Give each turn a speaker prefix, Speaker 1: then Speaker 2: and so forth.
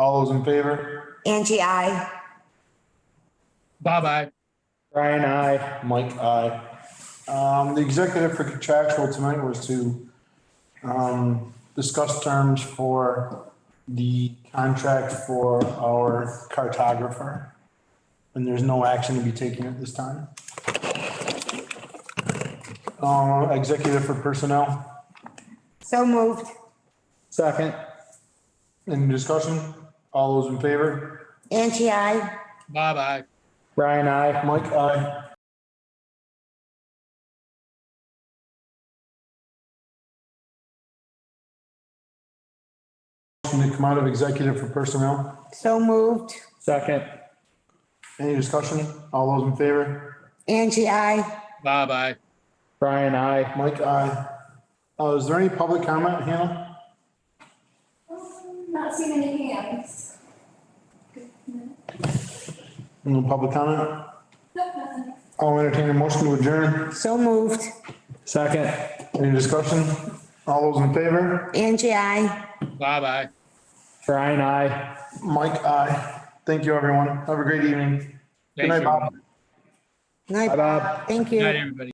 Speaker 1: All those in favor?
Speaker 2: Angie, I.
Speaker 3: Bob, I.
Speaker 1: Brian, I. Mike, I. Um, the executive for contractual tonight was to, um, discuss terms for the contract for our cartographer. And there's no action to be taken at this time. Uh, executive for personnel.
Speaker 2: So moved.
Speaker 4: Second.
Speaker 1: Any discussion? All those in favor?
Speaker 2: Angie, I.
Speaker 3: Bob, I.
Speaker 4: Brian, I.
Speaker 1: Mike, aye. Motion to come out of executive for personnel.
Speaker 2: So moved.
Speaker 4: Second.
Speaker 1: Any discussion? All those in favor?
Speaker 2: Angie, I.
Speaker 3: Bob, I.
Speaker 4: Brian, I.
Speaker 1: Mike, aye. Uh, is there any public comment, Hannah?
Speaker 5: Um, Not seeing any hands.
Speaker 1: No public comment?
Speaker 5: Nope, nothing.
Speaker 1: I'll entertain a motion to adjourn.
Speaker 2: So moved.
Speaker 4: Second.
Speaker 1: Any discussion? All those in favor?
Speaker 2: Angie, I.
Speaker 3: Bob, I.
Speaker 4: Brian, I.
Speaker 1: Mike, aye. Thank you, everyone. Have a great evening. Good
Speaker 3: Thanks,
Speaker 1: night, Bob.
Speaker 3: everyone.
Speaker 2: Night,
Speaker 4: Bye, Bob.
Speaker 2: Bob. Thank you.
Speaker 3: Good night, everybody.